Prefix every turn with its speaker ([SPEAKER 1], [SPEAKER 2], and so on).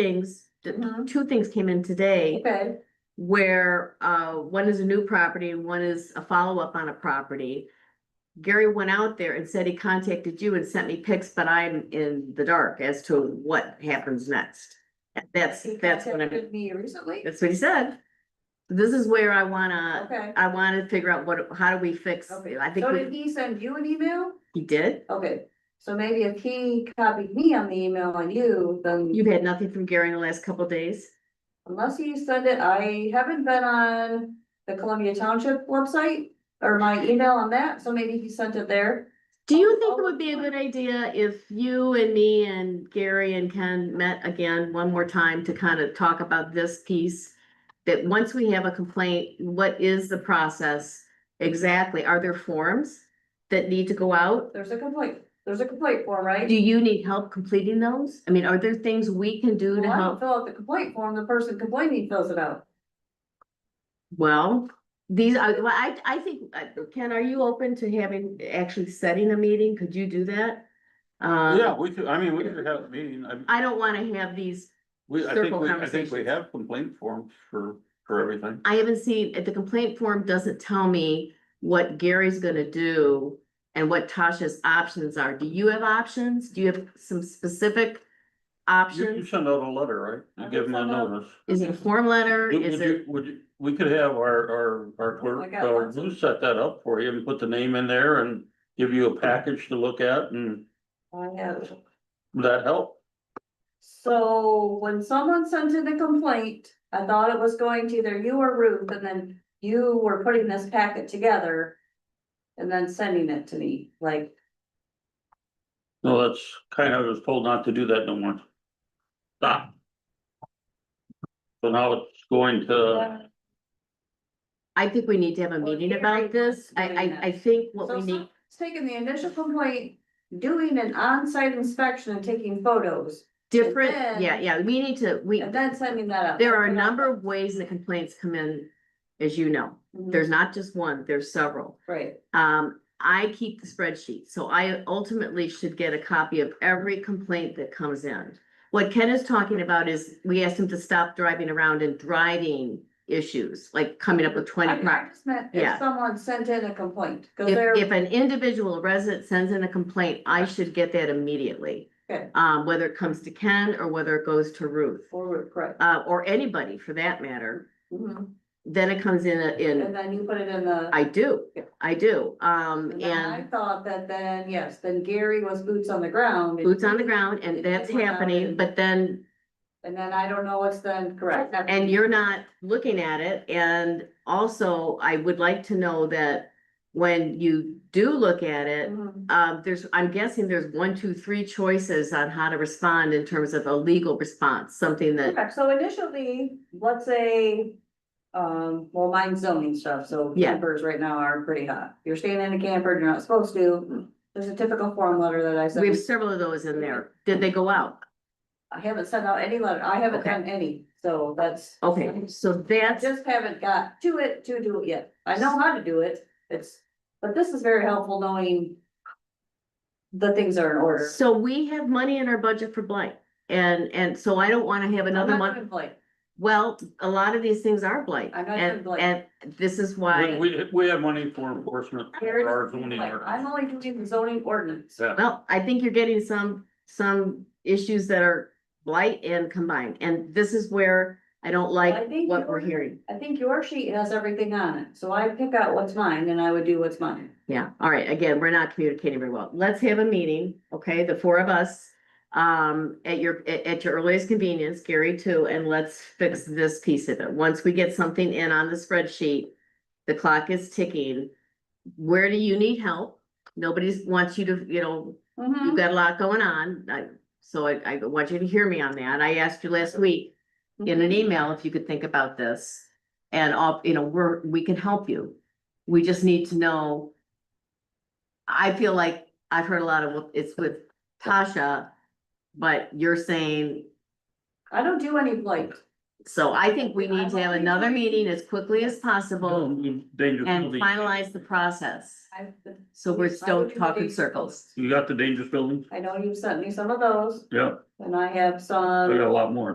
[SPEAKER 1] things, th-
[SPEAKER 2] Mhm.
[SPEAKER 1] two things came in today
[SPEAKER 2] Okay,
[SPEAKER 1] where uh one is a new property and one is a follow-up on a property. Gary went out there and said he contacted you and sent me pics, but I'm in the dark as to what happens next. That's,
[SPEAKER 2] he
[SPEAKER 1] that's what I'm,
[SPEAKER 2] contacted me recently,
[SPEAKER 1] that's what he said. This is where I wanna,
[SPEAKER 2] okay.
[SPEAKER 1] I wanna figure out what, how do we fix,
[SPEAKER 2] Okay,
[SPEAKER 1] I think
[SPEAKER 2] so
[SPEAKER 1] we-
[SPEAKER 2] did he send you an email?
[SPEAKER 1] he did.
[SPEAKER 2] Okay, so maybe if he copied me on the email on you, then
[SPEAKER 1] You've had nothing from Gary in the last couple days?
[SPEAKER 2] unless he sent it, I haven't been on the Columbia Township website. Or my email on that, so maybe he sent it there.
[SPEAKER 1] Do you
[SPEAKER 2] Oh,
[SPEAKER 1] think it
[SPEAKER 2] oh,
[SPEAKER 1] would be a
[SPEAKER 2] yeah.
[SPEAKER 1] good idea if you and me and Gary and Ken met again one more time to kind of talk about this piece? That once we have a complaint, what is the process exactly? Are there forms that need to go out?
[SPEAKER 2] There's a complaint, there's a complaint form,
[SPEAKER 1] Do
[SPEAKER 2] right?
[SPEAKER 1] you need help completing those? I mean, are there things we can do to
[SPEAKER 2] Well, I don't
[SPEAKER 1] help?
[SPEAKER 2] fill out the complaint form, the person complaining fills it out.
[SPEAKER 1] Well, these are, well, I, I think, uh, Ken, are you open to having, actually setting a meeting? Could you do that? Um,
[SPEAKER 3] Yeah, we could, I mean, we could have a meeting, I,
[SPEAKER 1] I don't want to have these
[SPEAKER 3] we, I think,
[SPEAKER 1] Circle
[SPEAKER 3] we, I think we
[SPEAKER 1] conversations.
[SPEAKER 3] have complaint forms for, for everything.
[SPEAKER 1] I haven't seen, if the complaint form doesn't tell me what Gary's gonna do and what Tasha's options are. Do you have options? Do you have some specific
[SPEAKER 3] You, you
[SPEAKER 1] options?
[SPEAKER 3] send out a letter, right?
[SPEAKER 2] I
[SPEAKER 3] You give them a
[SPEAKER 2] send out-
[SPEAKER 3] notice.
[SPEAKER 1] Is it a form letter?
[SPEAKER 3] Would
[SPEAKER 1] Is
[SPEAKER 3] would
[SPEAKER 1] it,
[SPEAKER 3] you, would you, we could have our, our, our
[SPEAKER 2] I
[SPEAKER 3] clerk,
[SPEAKER 2] got
[SPEAKER 3] or
[SPEAKER 2] lots of-
[SPEAKER 3] who set that up for you and put the name in there and give you a package to look at and
[SPEAKER 2] I have.
[SPEAKER 3] would that help?
[SPEAKER 2] So when someone sent in a complaint, I thought it was going to either you or Ruth, and then you were putting this packet together. And then sending it to me, like,
[SPEAKER 3] No, that's kind of, I was told not to do that no more. Stop. So now it's going to,
[SPEAKER 1] I think we need to have a
[SPEAKER 2] Well,
[SPEAKER 1] meeting
[SPEAKER 2] Gary
[SPEAKER 1] about this. I,
[SPEAKER 2] doing
[SPEAKER 1] I,
[SPEAKER 2] that.
[SPEAKER 1] I think what
[SPEAKER 2] so
[SPEAKER 1] we need,
[SPEAKER 2] it's taking the initial complaint, doing an on-site inspection and taking photos,
[SPEAKER 1] different,
[SPEAKER 2] then-
[SPEAKER 1] yeah, yeah, we need to, we,
[SPEAKER 2] and then sending that up.
[SPEAKER 1] there are a number of ways that complaints come in, as you know.
[SPEAKER 2] Mhm,
[SPEAKER 1] There's not just one, there's several.
[SPEAKER 2] Right,
[SPEAKER 1] Um, I keep the spreadsheet, so I ultimately should get a copy of every complaint that comes in. What Ken is talking about is, we asked him to stop driving around and driving issues, like coming up with
[SPEAKER 2] I
[SPEAKER 1] twenty
[SPEAKER 2] I
[SPEAKER 1] cars.
[SPEAKER 2] just meant
[SPEAKER 1] Yeah.
[SPEAKER 2] if someone sent in a complaint, cause
[SPEAKER 1] If,
[SPEAKER 2] they're,
[SPEAKER 1] if an individual resident sends in a complaint, I should get that immediately.
[SPEAKER 2] Okay.
[SPEAKER 1] Um, whether it comes to Ken or whether it goes to Ruth,
[SPEAKER 2] forward, correct.
[SPEAKER 1] uh, or anybody for that matter,
[SPEAKER 2] Mhm.
[SPEAKER 1] then it comes in, a- in,
[SPEAKER 2] And then you put it in the.
[SPEAKER 1] I do,
[SPEAKER 2] Yeah.
[SPEAKER 1] I do, um,
[SPEAKER 2] And then I
[SPEAKER 1] and
[SPEAKER 2] thought that then, yes, then Gary was boots on the ground. and-
[SPEAKER 1] boots on the ground, and that's
[SPEAKER 2] Boots on the ground
[SPEAKER 1] happening,
[SPEAKER 2] and-
[SPEAKER 1] but then
[SPEAKER 2] And then I don't know what's then correct.
[SPEAKER 1] And you're not looking at it, and also, I would like to know that when you do look at it,
[SPEAKER 2] Mhm.
[SPEAKER 1] um, there's, I'm guessing there's one, two, three choices on how to respond in terms of a legal response, something that,
[SPEAKER 2] Correct, so initially, let's say, um, well, mine's zoning stuff, so
[SPEAKER 1] Yeah.
[SPEAKER 2] campers right now are pretty hot. You're staying in a camper, you're not supposed to, there's a typical form letter that I
[SPEAKER 1] we have
[SPEAKER 2] sent.
[SPEAKER 1] several of those in there. Did they go out?
[SPEAKER 2] I haven't sent out any letter, I haven't
[SPEAKER 1] Okay.
[SPEAKER 2] done any, so that's.
[SPEAKER 1] Okay, so
[SPEAKER 2] I
[SPEAKER 1] that's,
[SPEAKER 2] just haven't got to it to do it yet. I know how to do it, it's, but this is very helpful knowing the things are in order.
[SPEAKER 1] so we have money in our budget for blank, and, and so I don't wanna have another
[SPEAKER 2] I'm not
[SPEAKER 1] month.
[SPEAKER 2] doing Blake.
[SPEAKER 1] Well, a lot of these things are blank,
[SPEAKER 2] I'm not
[SPEAKER 1] and,
[SPEAKER 2] doing
[SPEAKER 1] and
[SPEAKER 2] blank.
[SPEAKER 1] this is
[SPEAKER 3] we,
[SPEAKER 1] why,
[SPEAKER 3] we- we have money for enforcement. for our zoning
[SPEAKER 2] Like,
[SPEAKER 3] ordinance.
[SPEAKER 2] I'm only doing the zoning ordinance.
[SPEAKER 3] Yeah.
[SPEAKER 1] Well, I think you're getting some, some issues that are blight and combined, and this is where I don't
[SPEAKER 2] I
[SPEAKER 1] like
[SPEAKER 2] think
[SPEAKER 1] what we're
[SPEAKER 2] you're-
[SPEAKER 1] hearing.
[SPEAKER 2] I think your sheet has everything on it, so I pick out what's mine and I would do what's mine.
[SPEAKER 1] Yeah, all right, again, we're not communicating very well. Let's have a meeting, okay, the four of us. Um, at your, at, at your earliest convenience, Gary too, and let's fix this piece of it. Once we get something in on the spreadsheet. The clock is ticking. Where do you need help? Nobody's wants you to, you know,
[SPEAKER 2] Mm-hmm.
[SPEAKER 1] you've got a lot going on, I, so I, I want you to hear me on that, I asked you last week in an email if you could think about this. And all, you know, we're, we can help you, we just need to know. I feel like I've heard a lot of, well, it's with Tasha, but you're saying,
[SPEAKER 2] I don't do any blight.
[SPEAKER 1] so I think we need to have another meeting as quickly as possible
[SPEAKER 3] Danger
[SPEAKER 1] and
[SPEAKER 3] penalty.
[SPEAKER 1] finalize the process.
[SPEAKER 2] I-
[SPEAKER 1] So we're still
[SPEAKER 2] I do
[SPEAKER 1] talking
[SPEAKER 2] the-
[SPEAKER 1] circles.
[SPEAKER 3] You got the dangerous buildings?
[SPEAKER 2] I know you've sent me some of those
[SPEAKER 3] Yeah,
[SPEAKER 2] and I have
[SPEAKER 3] I got
[SPEAKER 2] some,
[SPEAKER 3] a lot more.